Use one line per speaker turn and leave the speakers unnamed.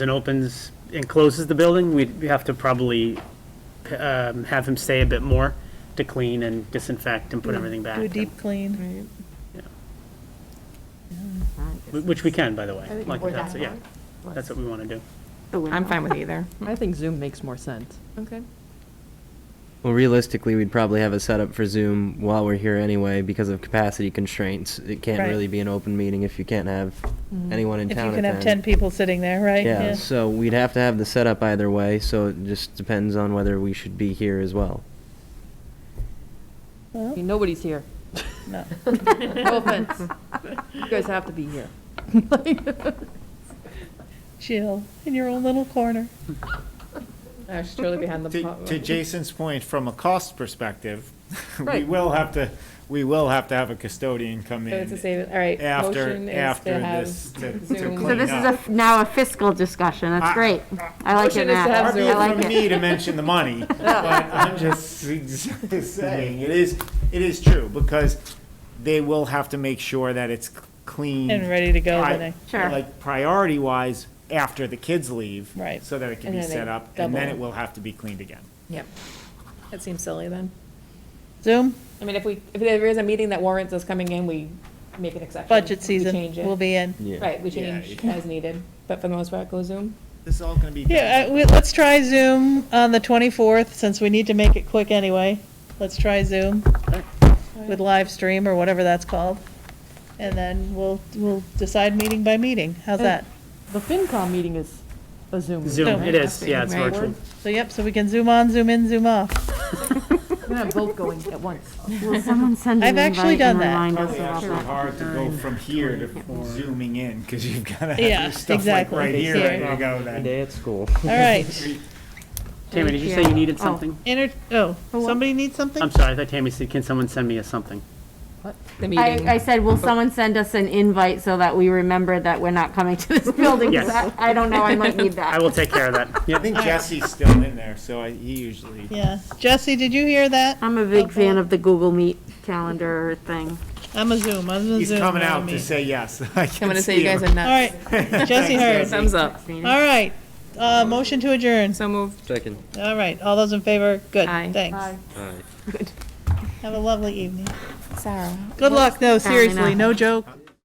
and opens and closes the building, we'd have to probably um, have him stay a bit more to clean and disinfect and put everything back,
Mm. Do a deep clean.
wh- which we can, by the way. Like,
Or
that's,
that
yeah,
one.
that's what we want to do.
I'm fine with either.
I think Zoom makes more sense.
Okay.
Well, realistically, we'd probably have a setup for Zoom while we're here anyway because of capacity constraints. It can't
Right.
really be an open meeting if you can't have anyone in
If you
town.
can
at
have
the
10
end.
people sitting there, right?
Yeah, so we'd have to have the setup either way. So it just depends on whether we should be here as well.
Well,
I mean, nobody's here.
No.
No offense. You guys have to be here.
Chill, in your own little corner.
I was totally Uh, behind the.
To, to Jason's point, from a cost perspective, we
Right.
will have to, we will have to have a custodian come
So it's a
in
save, all right. motion
after,
is to
after
have-
this to to
Zoom. So
clean
So this is a,
up.
now a fiscal discussion,
I-
that's great. I
Motion
like it,
is to
Matt,
have
Far be
I
it
like
from me
it.
to mention the money, but I'm just saying, it is, it is true, because they will have to make sure that it's c- clean.
And ready to go
pri-
the next-
Sure.
Like priority-wise, after the kids leave.
Right.
So that it can
And
be
then they
set up, and then
double.
it will have to be cleaned again.
Yep. That seems silly then.
Zoom,
I mean, if we, if there is a meeting that warrants us coming in, we make an exception.
budget
We
season,
change it.
we'll be in.
Yeah.
Right, we
Yeah,
change
yeah.
as needed, but for the most part, go Zoom.
This is all gonna be.
Yeah, I- we- let's try Zoom on the 24th, since we need to make it quick anyway. Let's try Zoom with live stream or whatever that's called. And then we'll, we'll decide meeting by meeting. How's that?
The FinCom meeting is a Zoom. meeting,
Zoom,
right?
it is, yeah, it's
Right.
virtual.
So yep, so we can zoom on, zoom in, zoom off.
We're gonna have both going at once.
Will someone send an
I've actually
invite and
done
remind us
Probably
about
actually
that?
hard to go from here to zooming in, because you've gotta have
Yeah,
your stuff like
exactly.
right here,
Here.
ready to go then.
day at school.
All right.
Tammy, did you say you needed
Oh.
something?
Enter, oh, somebody needs something?
I'm sorry, I thought Tammy said, can someone send me a something?
The
I, I said, will someone send us an invite so that we remember that we're not coming to this building? 'Cause
Yes.
I I don't know, I might need
I
that.
will take care of that.
I
Yep.
think Jesse's still in there, so I, he usually.
Yeah. Jesse, did you hear that?
I'm a big fan of the Google Meet calendar thing.
I'm a Zoom, I'm a Zoom.
He's
not
coming
a
out to
meet.
say yes.
I'm gonna say you guys are
All
nuts.
right, Jesse heard.
Thumbs up.
All right, uh, motion to adjourn.
So moved.
Second.
All right, all those in favor? Good,
Aye.
thanks.
All right.
Have a lovely evening.
Sarah.
Good luck, no,
Apparently
seriously,
not.
no joke.